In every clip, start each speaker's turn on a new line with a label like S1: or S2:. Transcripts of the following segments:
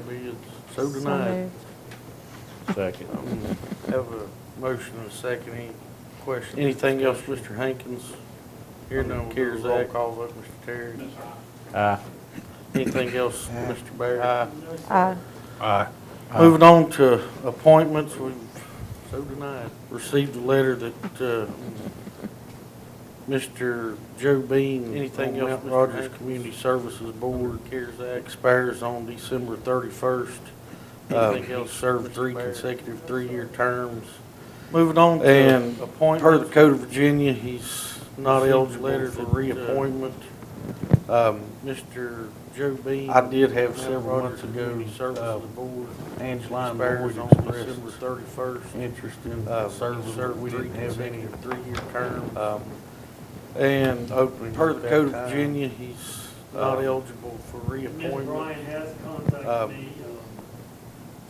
S1: bids. So
S2: So
S1: denied.
S2: moved.
S3: Second.
S1: Um, Have a motion and a second. Any question, anything else, Mr. Hankins? Here none, cares roll call vote, Mr. Terry.
S4: Uh,
S3: Aye.
S1: Anything else, Mr. Barry? Aye.
S2: Aye.
S3: Aye.
S1: Moving on to appointments, we've, so denied, received a letter that, uh, Mr. Joe Bean, anything else, Mr. Rogers Community Services Board, CARES Act expires on December thirty-first. Anything else, served three consecutive three-year terms. Moving on to
S4: And
S1: appointments. Per the Code of Virginia, he's not eligible for reappointment.
S4: Um,
S1: Mr. Joe Bean.
S4: I did have
S1: Mount
S4: several
S1: Rogers
S4: months ago,
S1: Community Services
S4: um,
S1: Board.
S4: Angela and
S1: Expires
S4: Boyd
S1: on
S4: expressed
S1: December thirty-first.
S4: interest in
S1: Uh,
S4: serving. We didn't have any.
S1: Three-year term.
S4: Um,
S1: And uh,
S4: opening
S1: per
S4: at
S1: the
S4: that
S1: Code of
S4: time.
S1: Virginia, he's not
S4: Uh,
S1: eligible for
S5: Ms.
S1: reappointment.
S5: Bryan has
S4: Um,
S5: contacted me. um,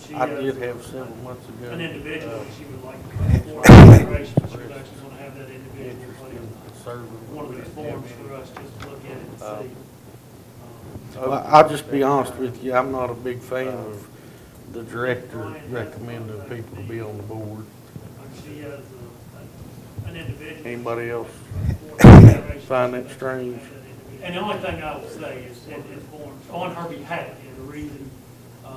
S5: she
S4: I
S5: has
S4: did have several months ago.
S5: An individual
S4: uh,
S5: that she would like to come forward for consideration, she would actually want to have that
S1: uh,
S5: individual
S4: Interest
S5: put
S4: in
S5: in
S4: serving.
S5: one of
S4: We
S5: these
S4: didn't have
S5: forms
S4: any.
S5: for us just to look at it and see.
S4: Uh,
S5: Um,
S1: Well, I'll just be honest with you, I'm not a big fan of the director recommending people to be on the board.
S5: and She has uh, an individual.
S1: Anybody else?
S5: Find
S1: Find that strange.
S5: And the only thing I will say is, it is born on her behalf, and the reason, uh,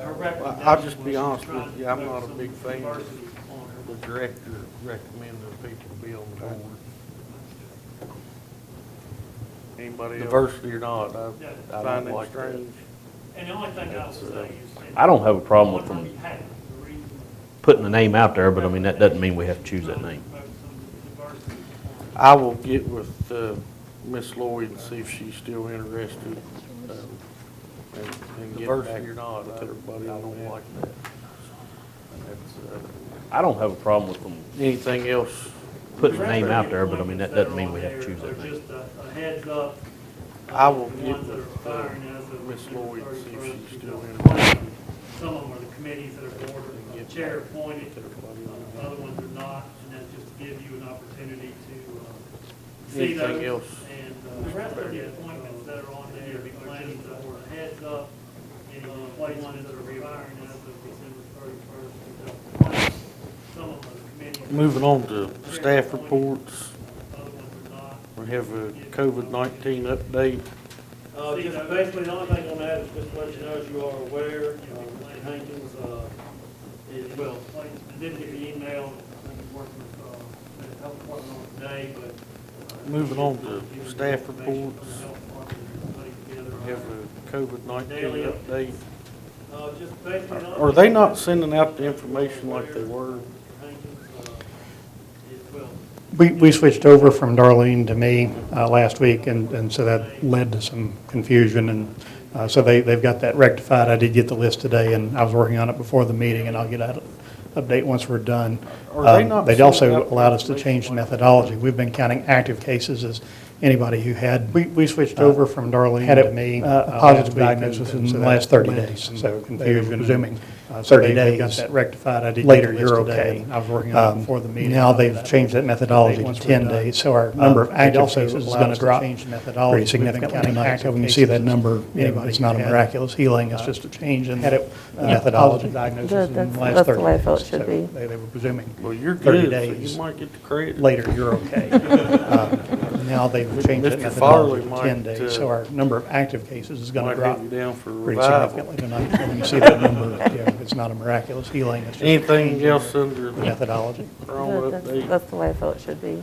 S5: her recommendation.
S1: I'll just be
S5: was she was
S1: honest with
S5: trying to
S1: you, I'm
S5: promote
S1: not a
S5: some
S1: big fan.
S5: diversity on her
S1: The director recommending people to be on the board.
S4: Anybody else?
S1: Diversity or not, I
S5: Yeah.
S4: I
S1: find
S4: don't
S1: that
S4: like that.
S1: strange.
S5: And the only thing I would
S1: uh,
S5: say is.
S3: I don't have a problem with
S5: On
S3: them.
S5: her behalf, the reason-
S3: Putting the name out there, but I mean, that doesn't mean we have to choose that name.
S5: Promote some diversity on her.
S1: I will get with uh, Miss Lloyd and see if she's still interested. um, and- and get back
S4: Diversity or not,
S1: with
S4: I-
S1: everybody
S4: I
S1: on
S4: don't
S1: that.
S4: like that. That's, uh,
S3: I don't have a problem with them
S1: Anything else?
S3: putting the name out there, but I mean, that doesn't mean we have to choose that
S5: Or
S3: name.
S5: just a a heads up.
S1: I will
S5: The
S1: get
S5: ones that are
S1: with, uh,
S5: firing as of
S1: Miss
S5: December
S1: Lloyd and see if
S5: 31st,
S1: she's still
S5: 2020. Some of them are the committees that are board,
S1: And get
S5: chair
S1: back
S5: appointed,
S1: to everybody on
S5: uh,
S1: that.
S5: other ones are not, and that's just to give you an opportunity to uh, see
S1: Anything
S5: those.
S1: else?
S5: And uh, the rest of the appointments that are on there, the planning board, heads up, any appointments that are firing as of December thirty-first, 2020. Some of them are the committees.
S1: Moving on to staff reports,
S5: Other ones are not.
S1: we have a COVID-19 update.
S6: Uh, just basically, the only thing I'm gonna add is just let you know, as you are aware, uh, Mr. Hankins, uh, is, well,
S5: Like, I did get the email, I think it's working with, uh, the health department on today, but. uh,
S1: Moving on to
S5: giving
S1: staff
S5: information from the health
S1: reports.
S5: department and everybody together.
S1: We have a COVID-19 update.
S6: uh, just basically. the only
S1: Are
S6: thing
S1: they
S6: I'm
S1: not
S5: uh,
S6: gonna
S1: sending out the information like they were?
S6: add is Mr. Hankins, uh, is, well,
S7: We, we switched over from Darlene to me uh, last week, and, and so that led to some confusion, and uh, so they, they've got that rectified. I did get the list today, and I was working on it before the meeting, and I'll get out an update once we're done.
S1: Are they
S7: Um,
S1: not
S7: They'd
S1: sending
S7: also
S1: out
S7: allowed us to
S1: information
S7: change the
S1: like-
S7: methodology. We've been counting active cases as anybody who had. We, we switched over from Darlene to me. uh, Had a positive diagnosis in the last 30 days, so confusion. Presuming 30 days. Got that rectified. I did later, you're okay. I was working on it before the meeting. Now they've changed that methodology to 10 days, so our number of active cases is going to drop pretty significantly tonight. So when you see that number, you uh, know, it's not a miraculous healing, it's just a change in uh, the methodology.
S2: That- in the that's- last that's the 30 way I felt it days. should So be.
S7: They were presuming
S1: Well, you're
S7: 30
S1: good, so you
S7: days.
S1: might get the credit.
S7: later, you're okay. Um, Now they've changed that
S1: Mr.
S7: methodology
S1: Farley
S7: to 10
S1: might,
S7: days, so
S1: uh,
S7: our number of active cases is going
S1: Might
S7: to drop
S1: have you down for
S7: pretty
S1: revival.
S7: significantly tonight. So When you see that number, you know, it's not a miraculous healing, it's just a change
S1: Anything
S7: in
S1: else under
S7: the
S1: the
S7: methodology.
S1: wrong
S2: That's-
S1: update?
S2: That's the way I felt it should be.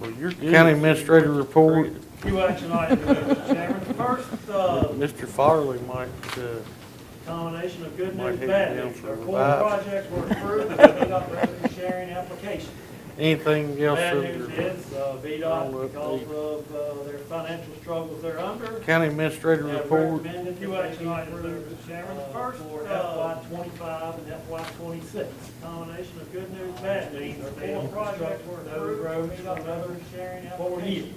S1: Well, your county administrator report,
S5: Few action items, Mr. Chairman. First, uh,
S1: Mr. Farley might, uh,
S5: combination of good
S1: Might
S5: news,
S1: hit
S5: bad
S1: you down
S5: news.
S1: for
S5: Our
S1: a
S5: core
S1: revive.
S5: projects were approved, and VDOT revenue sharing application.
S1: anything else
S5: Bad news
S1: under
S5: is, uh,
S1: I'll
S5: VDOT, because of, uh, their financial struggles they're under,
S1: county administrator
S5: Yeah,
S1: report?
S5: recommended few action items there, Mr. Chairman. First, uh, for FY twenty-five and FY twenty-six. Combination of good news, bad news. Four projects were approved, another sharing four years.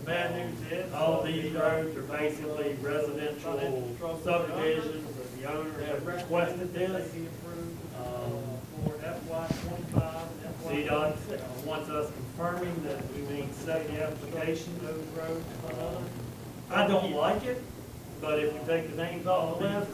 S5: The bad news is, all of these roads are basically residential subdivisions, but the owner has requested this. uh, Um, For FY twenty-five and FY twenty-six. Wants us confirming that Uh-huh. we need second application, those roads, uh, I don't like it, But if we take the names off the list,